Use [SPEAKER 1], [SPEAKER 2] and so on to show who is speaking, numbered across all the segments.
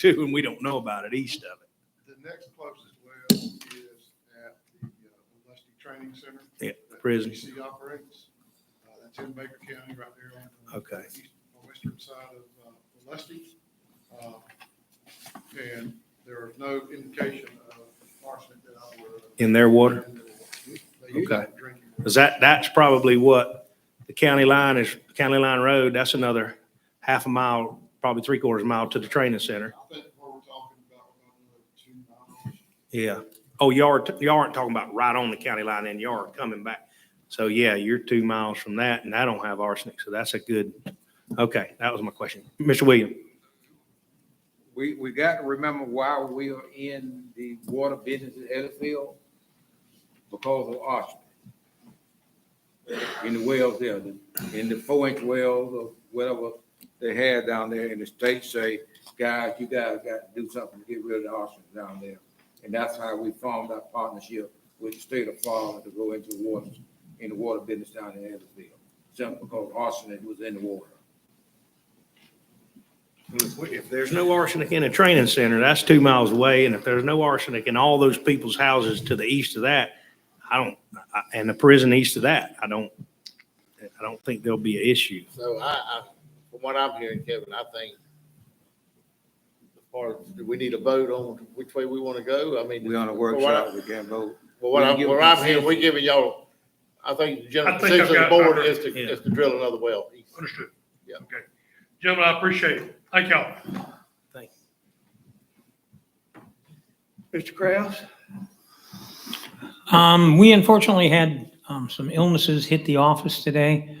[SPEAKER 1] too, and we don't know about it east of it.
[SPEAKER 2] The next closest well is at the uh, Lusty Training Center.
[SPEAKER 1] Yeah,
[SPEAKER 2] that
[SPEAKER 1] prison.
[SPEAKER 2] PC operates. Uh, That's in Baker County, right there on the
[SPEAKER 1] Okay.
[SPEAKER 2] east- on the western side of uh, Lusty. Uh, And there is no indication of arsenic that uh, I'm aware of.
[SPEAKER 1] In their water?
[SPEAKER 2] In their water. They usually
[SPEAKER 1] Okay.
[SPEAKER 2] drink it.
[SPEAKER 1] Because that, that's probably what the county line is, County Line Road, that's another half a mile, probably three quarters mile to the training center.
[SPEAKER 2] I think what we're talking about, we're talking about two miles.
[SPEAKER 1] Yeah. Oh, you are, you aren't talking about right on the county line and you are coming back. So yeah, you're two miles from that and I don't have arsenic, so that's a good, okay, that was my question. Mr. William?
[SPEAKER 3] We, we got to remember why we are in the water business in Ellisville because of arsenic. In the wells there, the- in the four inch wells or whatever they had down there and the state say, guys, you guys got to do something to get rid of the arsenic down there. And that's how we formed our partnership with the state of Florida to go into water, in the water business down in Ellisville. Simply because arsenic was in the water.
[SPEAKER 1] If there's no arsenic in a training center, that's two miles away, and if there's no arsenic in all those people's houses to the east of that, I don't, I- and the prison east of that, I don't, I don't think there'll be an issue.
[SPEAKER 4] So I, I, from what I'm hearing, Kevin, I think the part, do we need a vote on which way we want to go? I mean.
[SPEAKER 3] We on a
[SPEAKER 4] from what I-
[SPEAKER 3] workshop, we can't vote.
[SPEAKER 4] Well, what
[SPEAKER 3] We
[SPEAKER 4] I'm,
[SPEAKER 3] give
[SPEAKER 4] what I'm
[SPEAKER 3] a
[SPEAKER 4] hearing, we're giving y'all, I think the general
[SPEAKER 5] I think
[SPEAKER 4] position of the
[SPEAKER 5] I've got- I
[SPEAKER 4] board
[SPEAKER 5] heard-
[SPEAKER 4] is to,
[SPEAKER 1] yeah.
[SPEAKER 4] is to drill another well.
[SPEAKER 5] Understood.
[SPEAKER 4] Yeah.
[SPEAKER 5] Okay. Gentlemen, I appreciate it. Thank y'all.
[SPEAKER 1] Mr. Kraus?
[SPEAKER 6] Um, we unfortunately had, um, some illnesses hit the office today,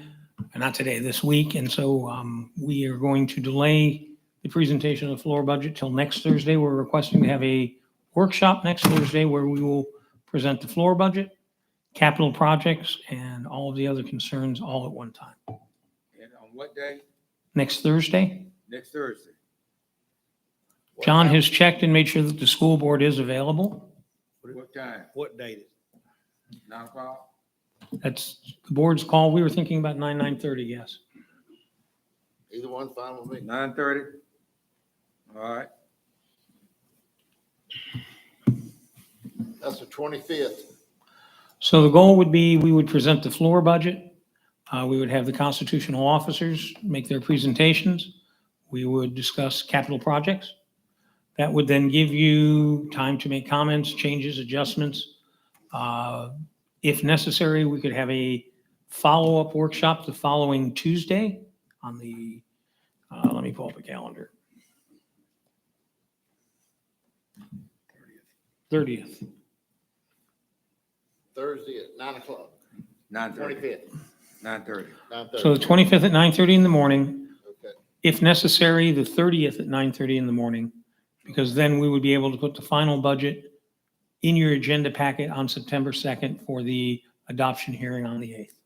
[SPEAKER 6] uh, not today, this week, and so, um, we are going to delay the presentation of the floor budget till next Thursday. We're requesting to have a workshop next Thursday where we will present the floor budget, capital projects, and all of the other concerns all at one time.
[SPEAKER 3] And on what day?
[SPEAKER 6] Next Thursday,
[SPEAKER 3] Next Thursday.
[SPEAKER 6] John has checked and made sure that the school board is available.
[SPEAKER 3] What time?
[SPEAKER 1] What date?
[SPEAKER 3] Nine o'clock?
[SPEAKER 6] That's the board's call. We were thinking about nine, nine thirty, yes.
[SPEAKER 4] Either one's fine with me.
[SPEAKER 3] Nine thirty? All right.
[SPEAKER 4] That's the twenty-fifth.
[SPEAKER 6] So the goal would be, we would present the floor budget. Uh, We would have the constitutional officers make their presentations. We would discuss capital projects. That would then give you time to make comments, changes, adjustments. Uh, If necessary, we could have a follow-up workshop the following Tuesday on the, uh, let me pull up a calendar. 30th.
[SPEAKER 4] Thursday at nine o'clock,
[SPEAKER 3] Nine thirty.
[SPEAKER 4] twenty-fifth,
[SPEAKER 3] Nine thirty.
[SPEAKER 4] nine
[SPEAKER 6] So the
[SPEAKER 4] thirty.
[SPEAKER 6] 25th at 9:30 in the morning,
[SPEAKER 4] Okay.
[SPEAKER 6] if necessary, the 30th at 9:30 in the morning, because then we would be able to put the final budget in your agenda packet on September 2nd for the adoption hearing on the 8th.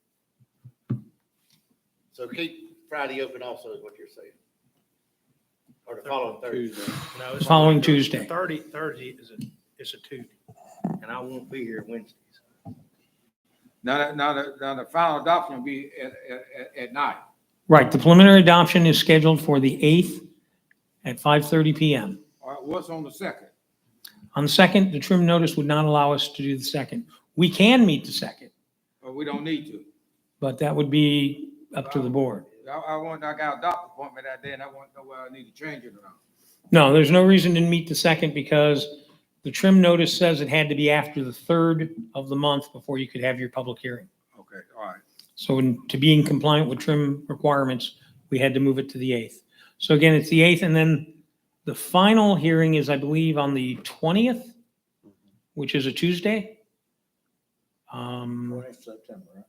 [SPEAKER 4] So keep Friday open also is what you're saying. Or the following Thursday.
[SPEAKER 3] Tuesday.
[SPEAKER 1] No, it's
[SPEAKER 6] Following Tuesday.
[SPEAKER 1] Thirty, Thursday is a, is a Tuesday, and I won't be here Wednesday.
[SPEAKER 3] Now, the- now, the- now the final adoption will be at, at- at, at night.
[SPEAKER 6] Right, the preliminary adoption is scheduled for the 8th at 5:30 PM.
[SPEAKER 3] All right, what's on the second?
[SPEAKER 6] On the 2nd, the trim notice would not allow us to do the 2nd. We can meet the 2nd,
[SPEAKER 3] Or we don't need to?
[SPEAKER 6] but that would be up to the board.
[SPEAKER 3] I, I want, I got a doctor appointment that day and I want to know whether I need to change it or not.
[SPEAKER 6] No, there's no reason to meet the second because the trim notice says it had to be after the third of the month before you could have your public hearing.
[SPEAKER 3] Okay, all right.
[SPEAKER 6] So in- to be in compliant with trim requirements, we had to move it to the 8th. So again, it's the 8th, and then the final hearing is, I believe, on the 20th, which is a Tuesday. Um,
[SPEAKER 4] September, right?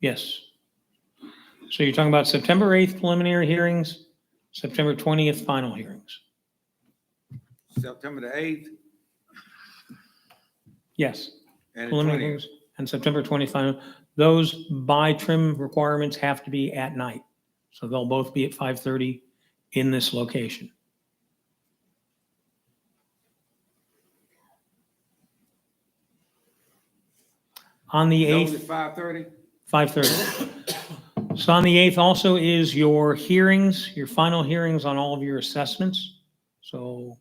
[SPEAKER 6] Yes. So you're talking about September 8th preliminary hearings, September 20th final hearings.
[SPEAKER 3] September the eighth
[SPEAKER 6] Yes.
[SPEAKER 3] and the
[SPEAKER 6] preliminary
[SPEAKER 3] twentieth.
[SPEAKER 6] hearings and September 20 final. Those by trim requirements have to be at night. So they'll both be at 5:30 in this location. On the 8th,
[SPEAKER 3] Five thirty?
[SPEAKER 6] 5:30. So on the 8th also is your hearings, your final hearings on all of your assessments. So